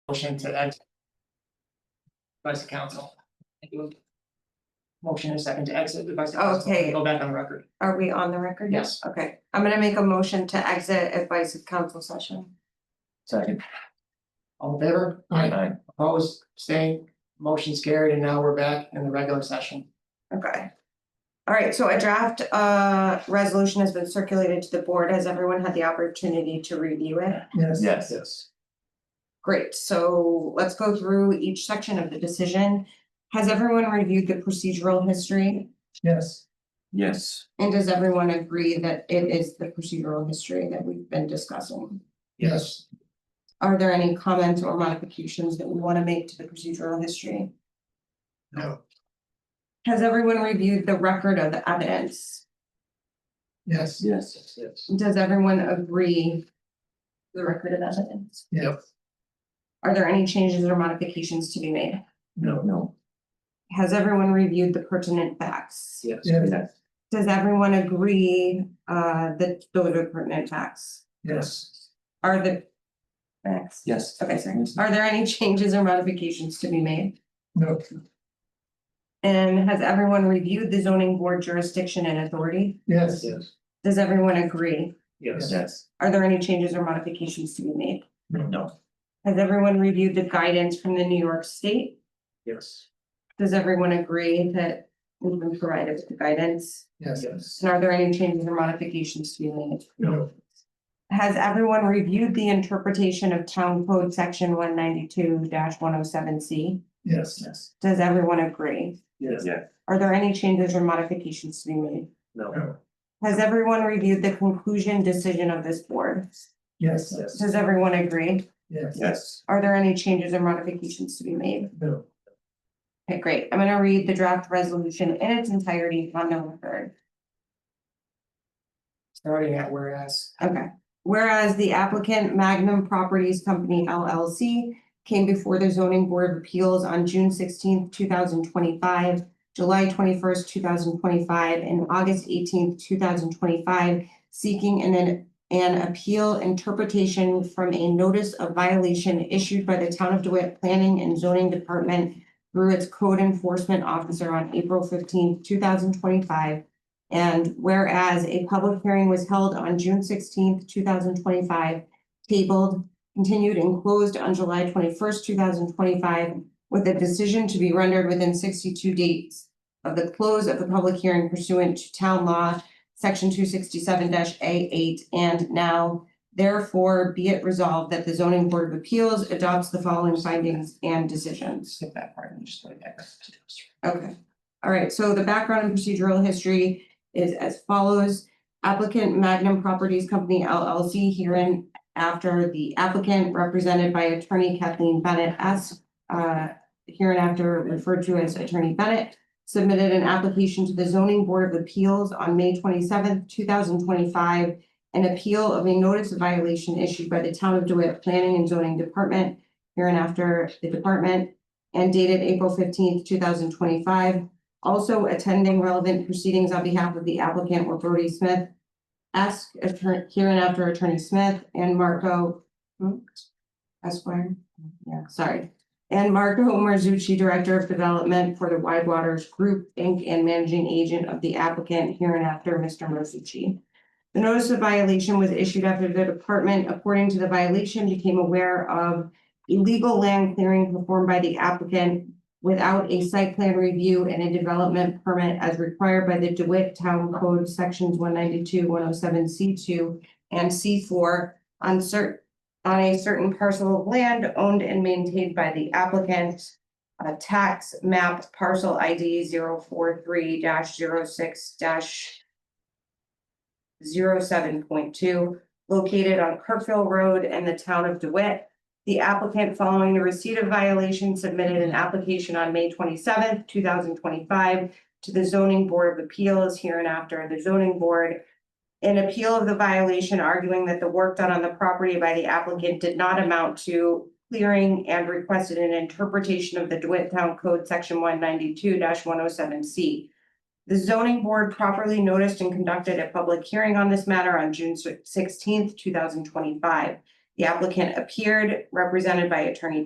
Motion to exit. Vice counsel. Motion is second to exit, the vice counsel, Okay. go back on the record, Are we on the record? yes. Okay, I'm gonna make a motion to exit advice of council session. Second. All in favor? Aye. Opposed, staying, motion's carried, and now we're back in the regular session. Okay. All right, so a draft uh resolution has been circulated to the board. Has everyone had the opportunity to review it? Yes. Yes. Yes. Great, so let's go through each section of the decision. Has everyone reviewed the procedural history? Yes. Yes. And does everyone agree that it is the procedural history that we've been discussing? Yes. Are there any comments or modifications that we want to make to the procedural history? No. Has everyone reviewed the record of the evidence? Yes. Yes. Yes. Does everyone agree? The record of evidence? Yep. Are there any changes or modifications to be made? No. No. Has everyone reviewed the pertinent facts? Yes. Yes. Does everyone agree uh that those are pertinent facts? Yes. Are the facts? Yes. Okay, sorry. Yes. Are there any changes or modifications to be made? No. And has everyone reviewed the zoning board jurisdiction and authority? Yes. Yes. Does everyone agree? Yes. Yes. Are there any changes or modifications to be made? No. Has everyone reviewed the guidance from the New York State? Yes. Does everyone agree that we've been provided with the guidance? Yes. Yes. And are there any changes or modifications to be made? No. Has everyone reviewed the interpretation of Town Code Section one ninety-two one oh seven C? Yes. Yes. Does everyone agree? Yes. Yes. Are there any changes or modifications to be made? No. Has everyone reviewed the conclusion decision of this board? Yes. Yes. Does everyone agree? Yes. Yes. Are there any changes or modifications to be made? No. Okay, great. I'm gonna read the draft resolution in its entirety on the record. Starting at whereas, Okay. Whereas the applicant Magnum Properties Company LLC came before the zoning board of appeals on June sixteenth, two thousand twenty-five, July twenty-first, two thousand twenty-five, and August eighteenth, two thousand twenty-five, seeking an, an appeal interpretation from a notice of violation issued by the town of DeWitt Planning and Zoning Department through its code enforcement officer on April fifteenth, two thousand twenty-five, and whereas a public hearing was held on June sixteenth, two thousand twenty-five, tabled, continued and closed on July twenty-first, two thousand twenty-five, with a decision to be rendered within sixty-two days of the close of the public hearing pursuant to town law, section two sixty-seven A eight, and now therefore be it resolved that the zoning board of appeals adopts the following findings and decisions. skip that part and just like X. Okay, all right, so the background and procedural history is as follows. Applicant Magnum Properties Company LLC herein after the applicant represented by attorney Kathleen Bennett S. Uh, hereinafter referred to as Attorney Bennett, submitted an application to the Zoning Board of Appeals on May twenty-seventh, two thousand twenty-five. An appeal of a notice of violation issued by the Town of DeWitt Planning and Zoning Department, hereinafter the department, and dated April fifteenth, two thousand twenty-five. Also attending relevant proceedings on behalf of the applicant were Brody Smith, ask attorney, hereinafter Attorney Smith, and Marco hmm, Esquire, yeah, sorry. And Marco Marzucci, Director of Development for the Wide Waters Group, Inc., and Managing Agent of the applicant hereinafter, Mr. Marzucci. The notice of violation was issued after the department, according to the violation, became aware of illegal land clearing performed by the applicant without a site plan review and a development permit as required by the DeWitt Town Code Sections one ninety-two, one oh seven, C two and C four on cer- on a certain parcel of land owned and maintained by the applicant. uh, tax map parcel ID 43 6 zero seven point two, located on Kirkville Road and the town of DeWitt. The applicant, following the receipt of violation, submitted an application on May twenty-seventh, two thousand twenty-five to the zoning board of appeals hereinafter, the zoning board. An appeal of the violation arguing that the work done on the property by the applicant did not amount to clearing and requested an interpretation of the DeWitt Town Code, section one ninety-two one oh seven C. The zoning board properly noticed and conducted a public hearing on this matter on June sixteenth, two thousand twenty-five. The applicant appeared, represented by attorney